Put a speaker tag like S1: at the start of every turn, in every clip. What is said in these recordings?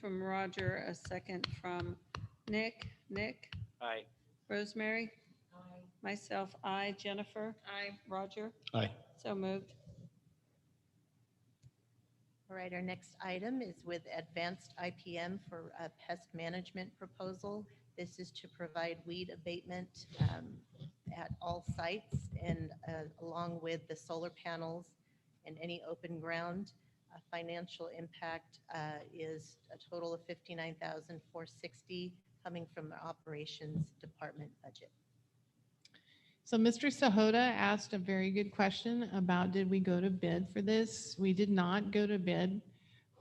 S1: from Roger, a second from Nick. Nick,
S2: Aye.
S1: Rosemary? Myself, I, Jennifer?
S3: Aye.
S1: Roger?
S4: Aye.
S1: So moved.
S5: All right, our next item is with Advanced IPM for a pest management proposal. This is to provide weed abatement um, at all sites and uh, along with the solar panels and any open ground. Uh, Financial impact uh, is a total of 59460 coming from the operations department budget.
S6: So Mr. Sahota asked a very good question about did we go to bid for this? We did not go to bid,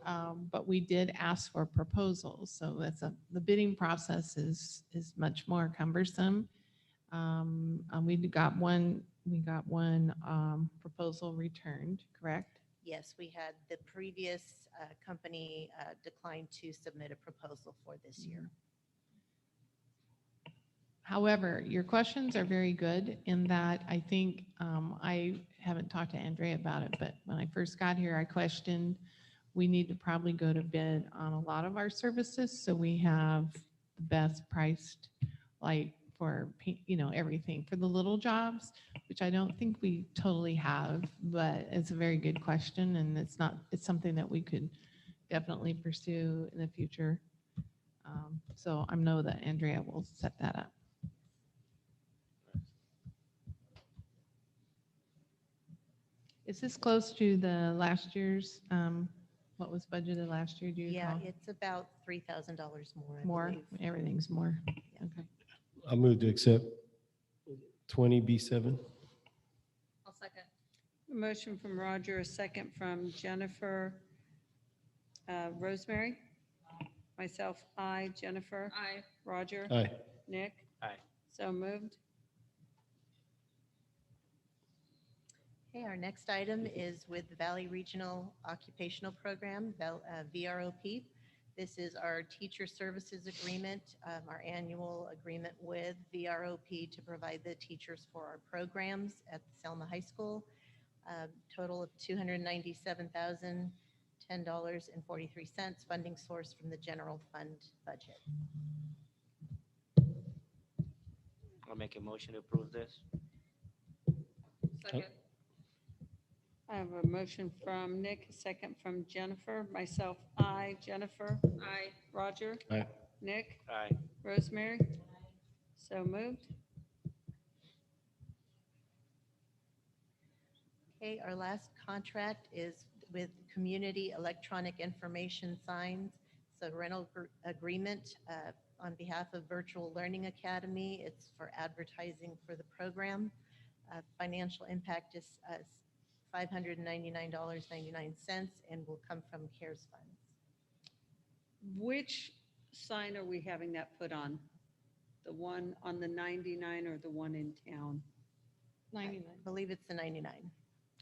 S6: um, but we did ask for proposals. So that's a, the bidding process is, is much more cumbersome. Um, and we got one, we got one, um, proposal returned, correct?
S5: Yes, we had the previous uh, company uh, decline to submit a proposal for this year.
S6: Mm-hmm. However, your questions are very good in that I think, um, I haven't talked to Andrea about it, but when I first got here, I questioned, we need to probably go to bid on a lot of our services, so we have the best priced, like for, pa- you know, everything for the little jobs, which I don't think we totally have, but it's a very good question and it's not, it's something that we could definitely pursue in the future. Um, So I know that Andrea will set that up. Is this close to the last year's, um, what was budgeted last year? Do you
S5: Yeah,
S6: recall?
S5: it's about three thousand dollars more. I
S6: Uh-huh. More,
S5: believe.
S6: everything's more.
S5: Yeah.
S6: Okay.
S4: I move to accept twenty B seven.
S3: I'll second.
S1: A motion from Roger, a second from Jennifer. Uh, Rosemary? Myself, I, Jennifer?
S3: Aye.
S1: Roger?
S4: Aye.
S1: Nick?
S2: Aye.
S1: So moved.
S5: Okay, our next item is with the Valley Regional Occupational Program, Val- uh, VROP. This is our teacher services agreement, um, our annual agreement with VROP to provide the teachers for our programs at Selma High School. Um, Total of two hundred ninety-seven thousand, ten dollars and forty-three cents, funding source from the general fund budget.
S2: I'll make a motion to approve this.
S3: Second.
S1: I have a motion from Nick, a second from Jennifer. Myself, I, Jennifer?
S3: Aye.
S1: Roger?
S4: Aye.
S1: Nick?
S2: Aye.
S1: Rosemary? So moved.
S5: Okay, our last contract is with Community Electronic Information Signs. It's a rental gr- agreement uh, on behalf of Virtual Learning Academy. It's for advertising for the program. Uh, Financial impact is uh, $599.99 and will come from CARES funds.
S1: Which sign are we having that put on? The one on the 99 or the one in town?
S5: I believe it's the 99.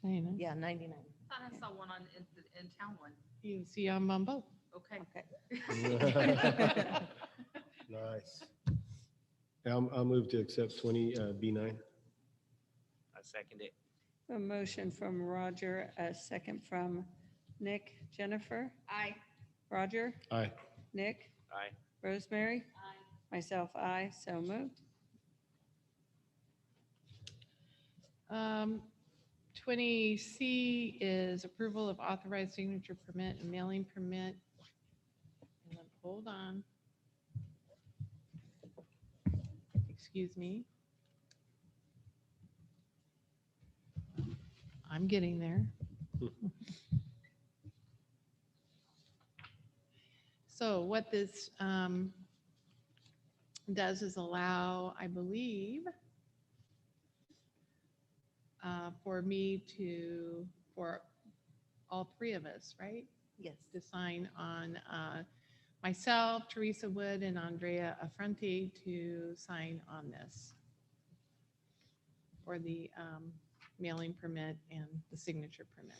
S6: Ninety-nine.
S5: Yeah, 99.
S3: Thought I saw one on, in, the- in town one.
S6: You can see I'm on both.
S3: Okay.
S4: Nice. I'll, I'll move to accept twenty uh, B nine.
S2: I second it.
S1: A motion from Roger, a second from Nick, Jennifer,
S3: Aye.
S1: Roger,
S4: Aye.
S1: Nick,
S2: Aye.
S1: Rosemary. Myself, I, so moved.
S6: Um, 20C is approval of authorized signature permit and mailing permit. And then, Hold on. Excuse me. I'm getting there. So what this um, does is allow, I believe, uh, for me to, for all three of us, right?
S5: Yes.
S6: To sign on uh, myself, Teresa Wood, and Andrea Affronti to sign on this for the um, mailing permit and the signature permit.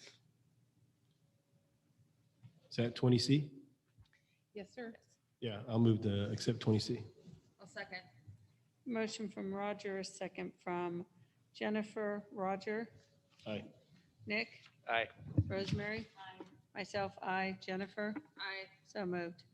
S4: Is that twenty C?
S6: Yes, sir.
S4: Yeah, I'll move to accept twenty C.
S3: I'll second.
S1: Motion from Roger, a second from Jennifer, Roger,
S4: Aye.
S1: Nick,
S2: Aye.
S1: Rosemary. Myself, I, Jennifer,
S3: Aye.
S1: so moved.